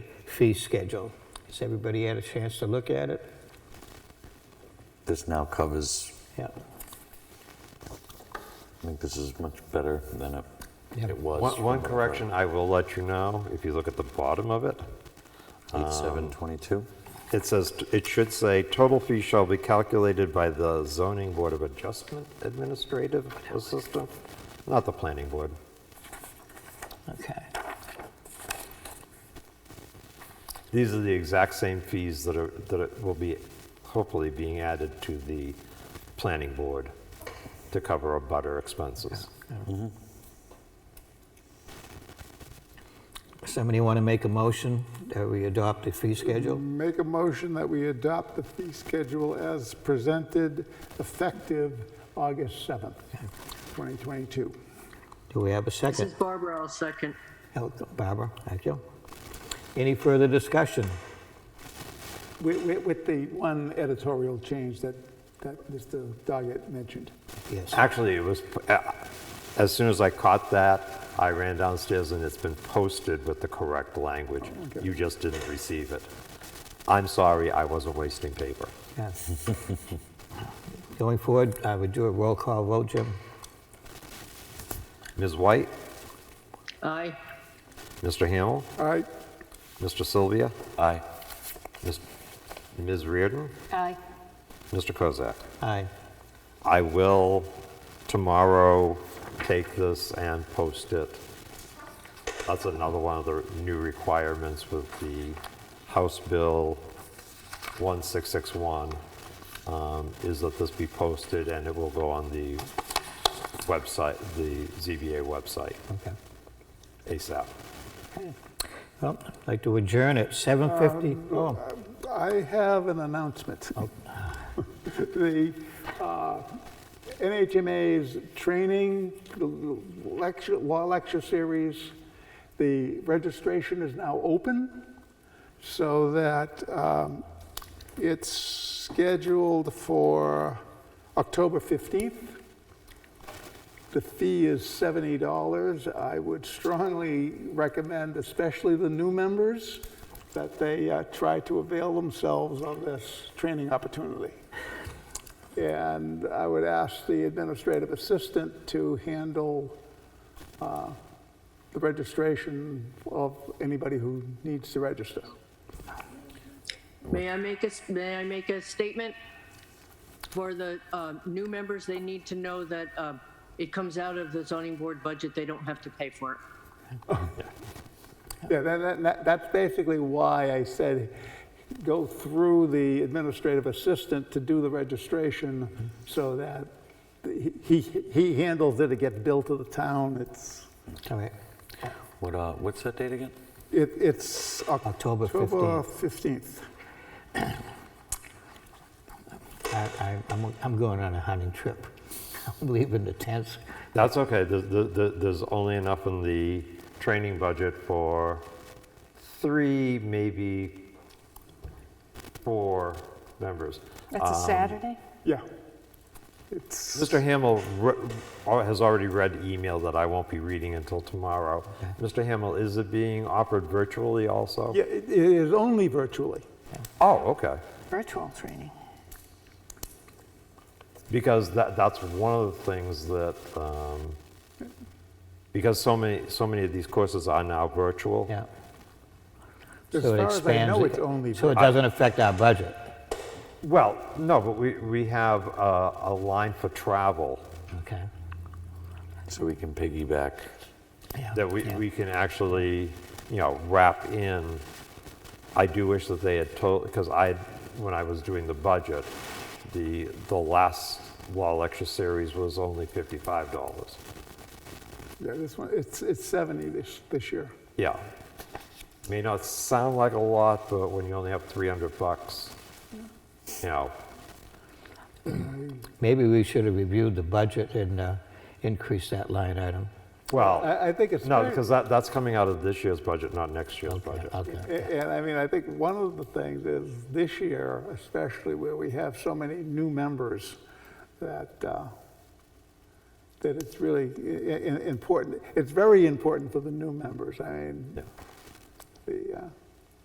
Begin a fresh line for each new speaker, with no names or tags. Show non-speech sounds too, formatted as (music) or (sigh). fee schedule. Has everybody had a chance to look at it?
This now covers,
Yeah.
I think this is much better than it,
Yeah.
it was.
One,
from
one
what I
correction I will let you know, if you look at the bottom of it,
read. 8722?
it says, it should say, total fee shall be calculated by the zoning board of adjustment administrative assistant, not the planning board.
Okay.
These are the exact same fees that are, that are- will be hopefully being added to the planning board to cover our butter expenses.
Somebody want to make a motion that we adopt the fee schedule?
Make a motion that we adopt the fee schedule as presented effective August 7th, 2022.
Do we have a
This is
second?
Barbara, I'll second.
Oh, Barbara, thank you. Any further discussion?
With- With with the one editorial change that that Mr. Doggett mentioned.
Yes.
Actually, it was, uh, as soon as I caught that, I ran downstairs and it's been posted with the correct language. You just didn't receive it. I'm sorry, I wasn't wasting paper.
Yeah. Going forward, I would do a roll call vote, Jim.
Ms. White,
Aye.
Mr. Hamel,
All right,
Mr. Sylvia,
Aye.
Ms. Ms. Reardon,
Aye.
Mr. Kozak.
Aye.
I will tomorrow take this and post it. That's another one of the new requirements with the House Bill 1661, um, is that this be posted and it will go on the website, the ZBA website
Okay.
ASAP.
Well, I'd like to adjourn at 7:50. Oh,
uh, I have an announcement. (laughs) The uh, NHMA's training, lecture, law lecture series, the registration is now open so that um, it's scheduled for October 15th. The fee is $70. I would strongly recommend, especially the new members, that they uh, try to avail themselves of this training opportunity. And I would ask the administrative assistant to handle uh, the registration of anybody who needs to register.
May I make a, s- may I make a statement? For the uh, new members, they need to know that uh, it comes out of the zoning board budget, they don't have to pay for it.
Yeah, that, that- that, that's basically why I said, go through the administrative assistant to do the registration so that he, he- he handles it, it gets billed to the town, it's,
all right.
What, uh, what's that date again?
it, it's
October
October 15th.
I, I, I'm, I'm going on a hunting trip. (laughs) I'm leaving the tents.
That's okay, there's, there- there- there's only enough in the training budget for three, maybe four members. Um,
That's a Saturday?
Yeah. It's,
Mr. Hamel re- al- has already read email that I won't be reading until tomorrow. Mr. Hamel, is it being offered virtually also?
yeah, it it is only virtually.
Oh, okay.
Virtual training.
Because that, that's one of the things that, um, because so many, so many of these courses are now virtual.
Yeah.
As
So it
far as I
expands
know,
it-
it's only,
So it
vir-
doesn't affect our budget.
Well, no, but we, we have a, a line for travel
Okay.
So we can piggyback.
Yeah,
that we,
yeah.
we can actually, you know, wrap in. I do wish that they had told, because I, when I was doing the budget, the, the last law lecture series was only $55.
yeah, this one, it's, it's 70 this, this year.
Yeah. May not sound like a lot, but when you only have 300 bucks, you know,
Maybe we should have reviewed the budget and uh, increased that line item. Oh.
well,
I, I think Uh, it's.
no,
very-
because that, that's coming out of this year's budget, not next year's
Okay,
budget.
okay.
A- And I mean, I think one of the things is this year, especially where we have so many new members, that, uh, that it's really i- i- important. It's very important for the new members. I mean,
Yeah.
the, uh,